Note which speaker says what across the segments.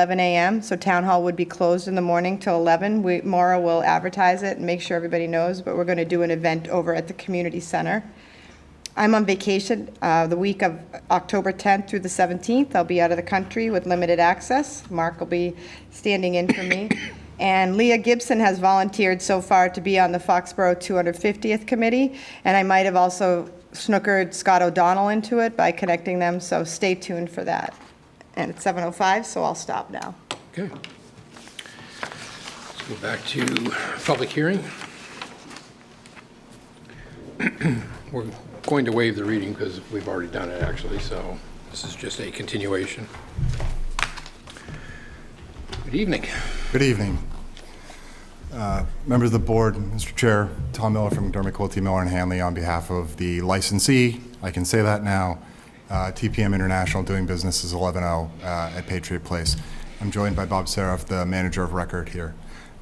Speaker 1: 11 a.m., so town hall would be closed in the morning till 11. We, Maura will advertise it and make sure everybody knows, but we're going to do an event over at the community center. I'm on vacation uh, the week of October 10th through the 17th. I'll be out of the country with limited access. Mark will be standing in for me. And Leah Gibson has volunteered so far to be on the Foxborough 250th Committee, and I might have also snookered Scott O'Donnell into it by connecting them, so stay tuned for that. And it's 7:05, so I'll stop now.
Speaker 2: Okay. Let's go back to public hearing. We're going to waive the reading because we've already done it, actually, so this is just a continuation. Good evening.
Speaker 3: Good evening. Uh, Members of the board, Mr. Chair, Tom Miller from McDermott Quilty Miller and Hanley on behalf of the licensee, I can say that now, uh, TPM International doing business as 11-0 uh, at Patriot Place. I'm joined by Bob Seraf, the manager of record here.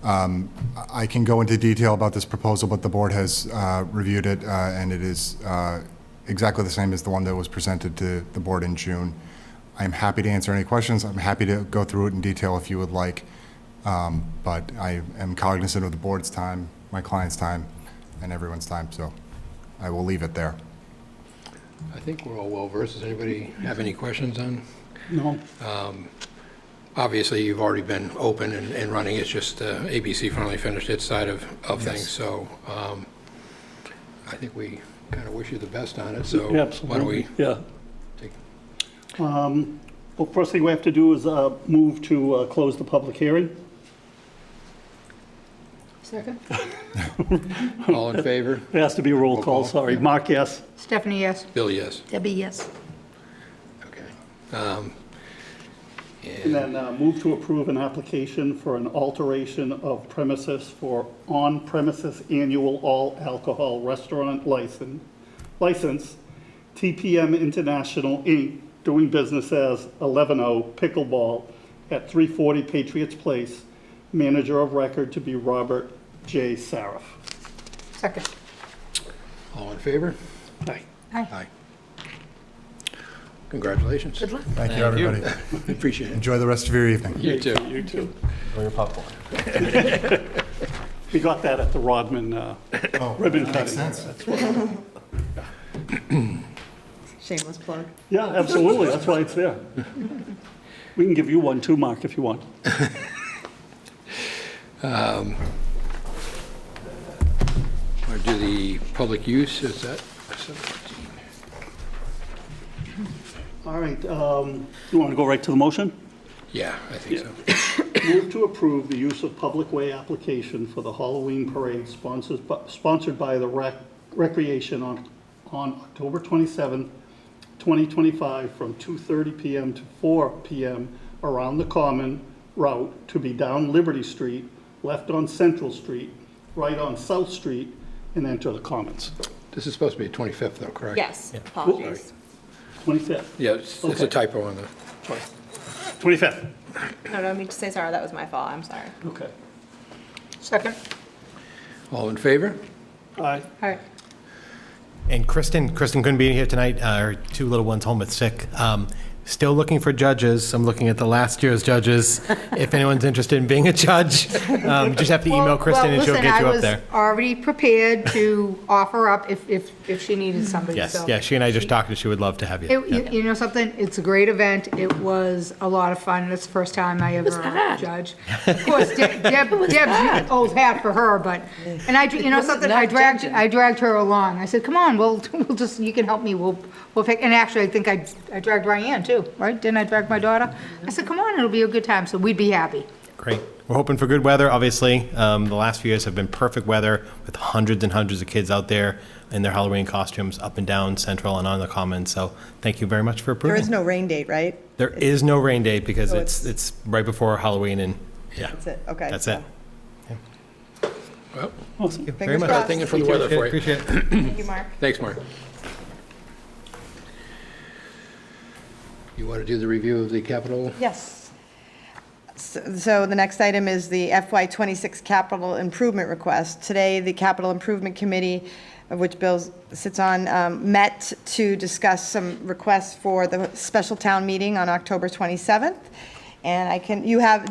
Speaker 3: Um, I I can go into detail about this proposal, but the board has uh, reviewed it, uh, and it is uh, exactly the same as the one that was presented to the board in June. I'm happy to answer any questions. I'm happy to go through it in detail if you would like. Um, But I am cognizant of the board's time, my client's time, and everyone's time, so I will leave it there.
Speaker 2: I think we're all well versed. Does anybody have any questions on?
Speaker 4: No,
Speaker 2: Obviously, you've already been open and, and running. It's just uh, ABC finally finished its side of, of things, so um, I think we kind of wish you the best on it, so why don't we
Speaker 4: absolutely, yeah.
Speaker 2: take
Speaker 4: Well, first thing we have to do is uh, move to uh, close the public hearing.
Speaker 5: Second.
Speaker 2: All in favor?
Speaker 4: It has to be a roll
Speaker 2: call.
Speaker 4: call, sorry. Mark, yes.
Speaker 5: Stephanie, yes.
Speaker 2: Bill, yes.
Speaker 5: Debbie, yes.
Speaker 2: Okay. Um,
Speaker 4: And
Speaker 2: And
Speaker 4: then uh, move to approve an application for an alteration of premises for on-premises annual all-alcohol restaurant license, license, TPM International, Inc., doing business as 110 Pickleball at 340 Patriots Place, manager of record to be Robert J. Saraf.
Speaker 5: Second.
Speaker 2: all in favor?
Speaker 4: Aye.
Speaker 5: Aye.
Speaker 2: Aye. Congratulations.
Speaker 5: Good luck.
Speaker 3: Thank you, everybody.
Speaker 2: Appreciate it.
Speaker 3: Enjoy the rest of your evening.
Speaker 2: You too.
Speaker 4: You too.
Speaker 3: Enjoy your popcorn.
Speaker 4: We got that at the Rodman uh,
Speaker 3: Oh.
Speaker 4: ribbon cutting.
Speaker 3: Makes sense.
Speaker 1: Shameless plug.
Speaker 4: Yeah, absolutely, that's why it's there. We can give you one too, Mark, if you want.
Speaker 2: Or do the public use, is that? 17?
Speaker 4: All right, um, you want to go right to the motion?
Speaker 2: Yeah, I think so.
Speaker 4: Move to approve the use of public way application for the Halloween parade sponsors- sponsored by the Rec- Recreation on on October 27, 2025, from 2:30 PM to 4 PM around the Common Route to be down Liberty Street, left on Central Street, right on South Street, and enter the Commons.
Speaker 2: This is supposed to be 25th, though, correct?
Speaker 6: Yes, apologies.
Speaker 4: 25th.
Speaker 2: Yeah, it's it's a
Speaker 4: Okay.
Speaker 2: typo on the,
Speaker 4: 25th.
Speaker 6: No, no, I mean to say sorry, that was my fault, I'm sorry.
Speaker 4: Okay.
Speaker 5: Second.
Speaker 2: all in favor?
Speaker 4: Aye.
Speaker 5: All right.
Speaker 7: And Kristen, Kristen couldn't be here tonight, uh, her two little ones home with sick. Um, Still looking for judges, I'm looking at the last year's judges, if anyone's interested in being a judge. um, Just have to email Kristen and she'll get you up there.
Speaker 5: I was already prepared to offer up if, if, if she needed somebody,
Speaker 7: Yes,
Speaker 5: so.
Speaker 7: yeah, she and I just talked, and she would love to have you.
Speaker 5: It-
Speaker 7: Yeah.
Speaker 5: You you know something? It's a great event. It was a lot of fun. It's the first time I ever judged. Of course, De- Deb, Deb's old hat for her, but, and I, you know something? I dragged, I dragged her along. I said, come on, we'll, we'll just, you can help me. We'll, we'll pick, and actually, I think I, I dragged Ryan too, right? Didn't I drag my daughter? I said, come on, it'll be a good time. So we'd be happy.
Speaker 7: Great. We're hoping for good weather, obviously. Um, the last few years have been perfect weather with hundreds and hundreds of kids out there in their Halloween costumes up and down Central and on the Commons. So thank you very much for
Speaker 1: There
Speaker 7: approving.
Speaker 1: is no rain date, right?
Speaker 7: There is no rain date because
Speaker 1: So
Speaker 7: it's, it's right before Halloween and, yeah.
Speaker 1: That's it, okay.
Speaker 7: That's
Speaker 1: so-
Speaker 7: it.
Speaker 2: Well,
Speaker 4: Awesome.
Speaker 7: Very
Speaker 1: Fingers
Speaker 7: much.
Speaker 1: crossed.
Speaker 2: thinking for the weather for you.
Speaker 7: Appreciate it.
Speaker 6: Thank you, Mark.
Speaker 2: Thanks, Mark. You want to do the review of the capital?
Speaker 1: Yes. So so the next item is the FY '26 capital improvement request. Today, the Capital Improvement Committee, of which Bill sits on, um, met to discuss some requests for the special town meeting on October 27th. And I can, you have,